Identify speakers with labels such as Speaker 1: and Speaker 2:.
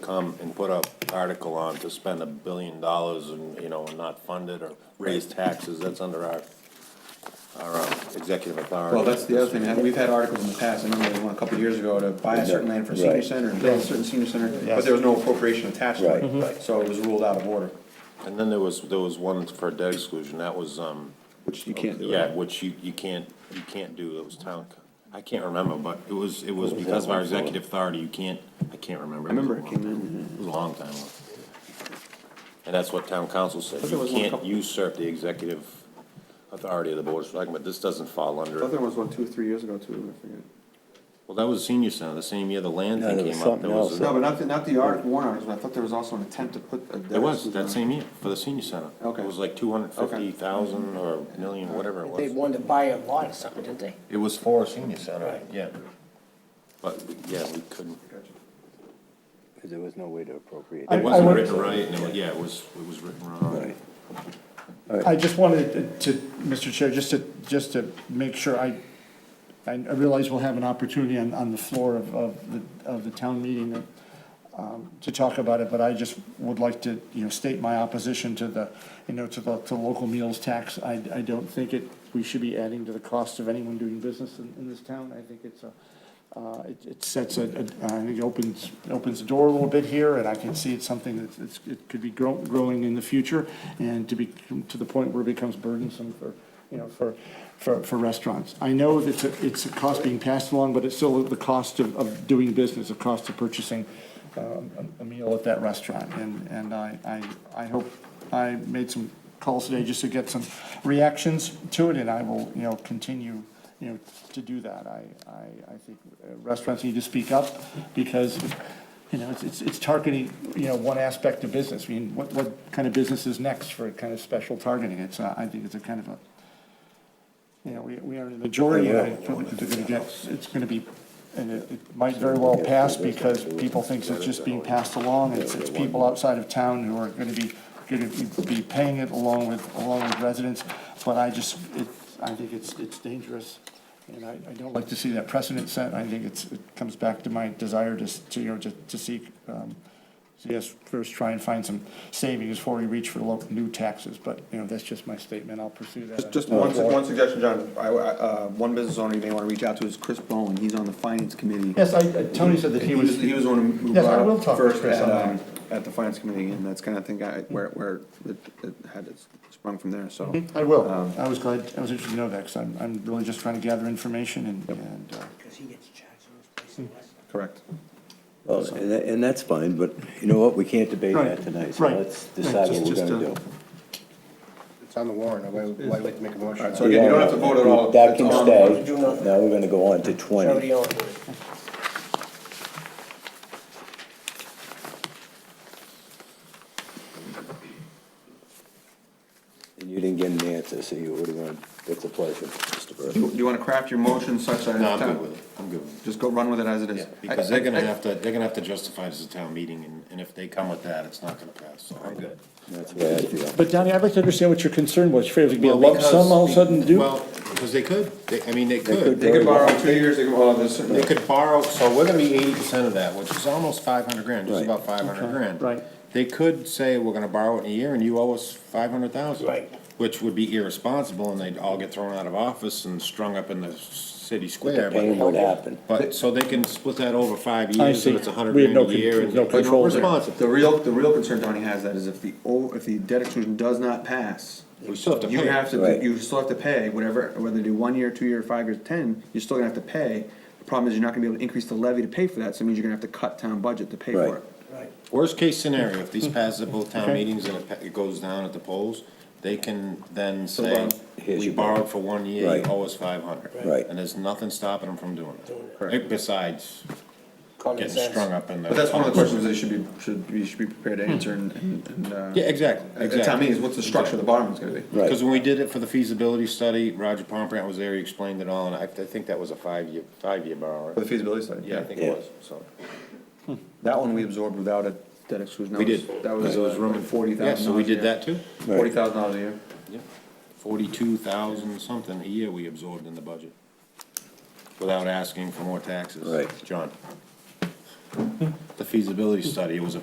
Speaker 1: come and put a article on to spend a billion dollars and, you know, and not fund it or raise taxes, that's under our, our um, executive authority.
Speaker 2: Well, that's the other thing, we've had articles in the past, I remember one a couple of years ago to buy a certain land for a senior
Speaker 3: Right.
Speaker 2: center and build a certain senior center, but
Speaker 4: Yes.
Speaker 2: there was no appropriation attached to
Speaker 3: Right.
Speaker 2: it, so it was ruled out of order.
Speaker 1: And then there was, there was one for debt exclusion, that was, um,
Speaker 3: which you can't do.
Speaker 1: yeah, which you, you can't, you can't do, that was town, I can't remember, but it was, it was
Speaker 3: was
Speaker 1: because of
Speaker 3: that
Speaker 1: our
Speaker 3: one for?
Speaker 1: executive authority, you can't, I can't remember.
Speaker 3: I remember it came in,
Speaker 1: It was a long time ago. And that's what town council said,
Speaker 2: there
Speaker 1: you
Speaker 2: was one
Speaker 1: can't
Speaker 2: couple-
Speaker 1: usurp the executive authority of the board of selectmen, but this doesn't fall under it.
Speaker 2: The other one was one, two, three years ago too, I forget.
Speaker 1: Well, that was senior center, the same year the land
Speaker 3: No,
Speaker 1: thing
Speaker 3: there was
Speaker 1: came up,
Speaker 3: something
Speaker 1: there was,
Speaker 3: else.
Speaker 2: No,
Speaker 1: a-
Speaker 2: but not, the- not the article, warrant articles, but I thought there was also an attempt to put a.
Speaker 1: there was, that same year, for the senior center.
Speaker 2: Okay.
Speaker 1: It was like two hundred fifty thousand or a million, whatever it
Speaker 4: They
Speaker 1: was.
Speaker 4: wanted to buy a lot or something, didn't they?
Speaker 1: It was for a senior center,
Speaker 4: Right.
Speaker 1: yeah. But, yeah, we couldn't,
Speaker 3: because there was no way to appropriate.
Speaker 1: it
Speaker 3: it.
Speaker 5: I-
Speaker 1: wasn't
Speaker 5: would-
Speaker 1: written right, and it was, yeah, it was, it was written wrong.
Speaker 3: Right.
Speaker 5: I just wanted to, Mr. Chair, just to, just to make sure, I, I realize we'll have an opportunity on, on the floor of, of the, of the town meeting that, um, to talk about it, but I just would like to, you know, state my opposition to the, you know, to the, to local meals tax. I, I don't think it, we should be adding to the cost of anyone doing business in, in this town. I think it's a, uh, it, it sets a, a- I think it opens, opens the door a little bit here, and I can see it's something that's, it's, it could be grow, growing in the future, and to be, to the point where it becomes burdensome for, you know, for, for, for restaurants. I know that it's a- it's a cost being passed along, but it's still the cost of, of doing business, the cost of purchasing, um, a a meal at that restaurant, and, and I, I, I hope, I made some calls today just to get some reactions to it, and I will, you know, continue, you know, to do that. I, I, I think uh, restaurants need to speak up, because, you know, it's- it's, it's targeting, you know, one aspect of business. I mean, what, what kind of business is next for kind of special targeting? It's, uh, I think it's a kind of a, you know, we, we are in the majority, and I don't think they're gonna get, it's gonna be, and it, it might very well pass because people thinks it's just being passed along, it's, it's people outside of town who are gonna be, gonna be be paying it along with, along with residents, but I just, it, I think it's, it's dangerous, and I, I don't like to see that precedent set, I think it's, it comes back to my desire to, s- to, you know, to, to seek, um, so yes, first try and find some savings before we reach for local new taxes, but, you know, that's just my statement, I'll pursue that.
Speaker 2: Just one, one suggestion, John, I, I, uh, one business owner you may wanna reach out to is Chris Bowen, he's on the finance committee.
Speaker 5: Yes, I, I- Tony said that he was,
Speaker 2: He was the one who
Speaker 5: Yes, I
Speaker 2: brought
Speaker 5: will
Speaker 2: up
Speaker 5: talk to
Speaker 2: first
Speaker 5: Chris
Speaker 2: at,
Speaker 5: on
Speaker 2: um,
Speaker 5: that.
Speaker 2: at the finance committee, and that's kinda thing I, where, where it, it had its sprung from there, so.
Speaker 5: Hmm?
Speaker 1: Mm-hmm.
Speaker 5: I will.
Speaker 2: Um,
Speaker 5: I was glad, I was interested to know that, because I'm, I'm really just trying to gather information and, and, uh,
Speaker 4: Because he gets charged for his place. in West.
Speaker 2: Correct.
Speaker 3: Well, and, that- and that's fine, but you know what, we can't debate that
Speaker 5: Right,
Speaker 3: tonight, so
Speaker 5: right.
Speaker 3: let's
Speaker 5: Right,
Speaker 3: decide
Speaker 5: just-
Speaker 3: what we're
Speaker 5: just,
Speaker 3: gonna
Speaker 5: uh,
Speaker 3: do.
Speaker 6: It's on the warrant, why, why would you make a motion?
Speaker 2: Alright, so again, you don't have to vote at all.
Speaker 3: Uh, That
Speaker 2: It's
Speaker 3: can
Speaker 2: on-
Speaker 3: stay, now we're gonna go on to twenty.
Speaker 4: Nobody owns it.
Speaker 3: And you didn't get an answer, so you, what do you want, what's the pleasure, Mr. Burke?
Speaker 2: Do you wanna craft your motion such that?
Speaker 1: No, I'm good with it, I'm good with it.
Speaker 2: Just go run with it as it is.
Speaker 1: Yeah, because they're
Speaker 2: I-
Speaker 1: gonna
Speaker 2: I-
Speaker 1: have to, they're gonna have to justify this at town meeting, and, and if they come with that, it's not gonna pass, so I'm good.
Speaker 3: That's the way I feel.
Speaker 5: but Donnie, I'd like to understand what your concern was, afraid it would be a
Speaker 1: Well,
Speaker 5: lump sum all of a
Speaker 1: because-
Speaker 5: sudden due?
Speaker 1: Well, because they could, they, I mean, they
Speaker 3: could
Speaker 1: could,
Speaker 2: They could borrow two years, they could, well, there's certain-
Speaker 1: they could borrow, so we're gonna be eighty percent of that, which is almost five hundred grand, just
Speaker 3: Right.
Speaker 1: about five hundred grand.
Speaker 5: right.
Speaker 1: They could say, we're gonna borrow it in a year, and you owe us five hundred thousand.
Speaker 4: Right.
Speaker 1: Which would be irresponsible, and they'd all get thrown out of office and strung up in the city square.
Speaker 3: pain would happen.
Speaker 1: But, so they can split that over five
Speaker 5: I
Speaker 1: years,
Speaker 5: see.
Speaker 1: and it's a hundred
Speaker 5: We have
Speaker 1: grand
Speaker 5: no
Speaker 1: a year.
Speaker 5: con-
Speaker 1: and
Speaker 5: no
Speaker 1: it's
Speaker 5: control there.
Speaker 1: Responsible.
Speaker 2: The real, the real concern Tony has that is if the, o- if the debt exclusion does not pass,
Speaker 1: We still have to
Speaker 2: you
Speaker 1: pay.
Speaker 2: have to,
Speaker 3: Right.
Speaker 2: you still have to pay whatever, whether they do one year, two year, five years, ten, you're still gonna have to pay. The problem is you're not gonna be able to increase the levy to pay for that, so it means you're gonna have to cut town budget to pay
Speaker 3: Right.
Speaker 2: for it.
Speaker 4: Right.
Speaker 1: Worst case scenario, if these pass at both town
Speaker 5: Okay.
Speaker 1: meetings and it pa- it goes down at the polls, they can then say,
Speaker 2: borrow-
Speaker 3: Here's
Speaker 1: we
Speaker 3: your money."
Speaker 1: borrowed for one year, you
Speaker 3: Right.
Speaker 1: owe us five hundred.
Speaker 3: Right.
Speaker 1: And there's nothing stopping them from doing
Speaker 2: Correct.
Speaker 1: it, besides
Speaker 4: Common
Speaker 1: getting
Speaker 4: sense.
Speaker 1: strung up in the.
Speaker 2: But that's one of the questions they should be, should, you should be prepared to answer and, and, and, uh.
Speaker 1: Yeah, exactly,
Speaker 2: At
Speaker 1: exactly.
Speaker 2: at town meetings, what's the structure of the bottom is gonna be?
Speaker 3: Right.
Speaker 1: Because when we did it for the feasibility study, Roger Pomperant was there, he explained it all, and I, I think that was a five-year, five-year borrow.
Speaker 2: For the feasibility study.
Speaker 1: Yeah, I think
Speaker 3: Yeah.
Speaker 1: it was, so.
Speaker 2: That one we absorbed without a debt exclusion. That
Speaker 1: We
Speaker 2: was-
Speaker 1: did.
Speaker 2: That was,
Speaker 1: Because it was room
Speaker 2: uh,
Speaker 1: and-
Speaker 2: forty thousand.
Speaker 1: Yeah, so we did that too?
Speaker 2: Forty thousand dollars a year.
Speaker 1: Yep. Forty-two thousand something a year we absorbed in the budget, without asking for more taxes.
Speaker 3: Right.
Speaker 1: John. The feasibility study, it was a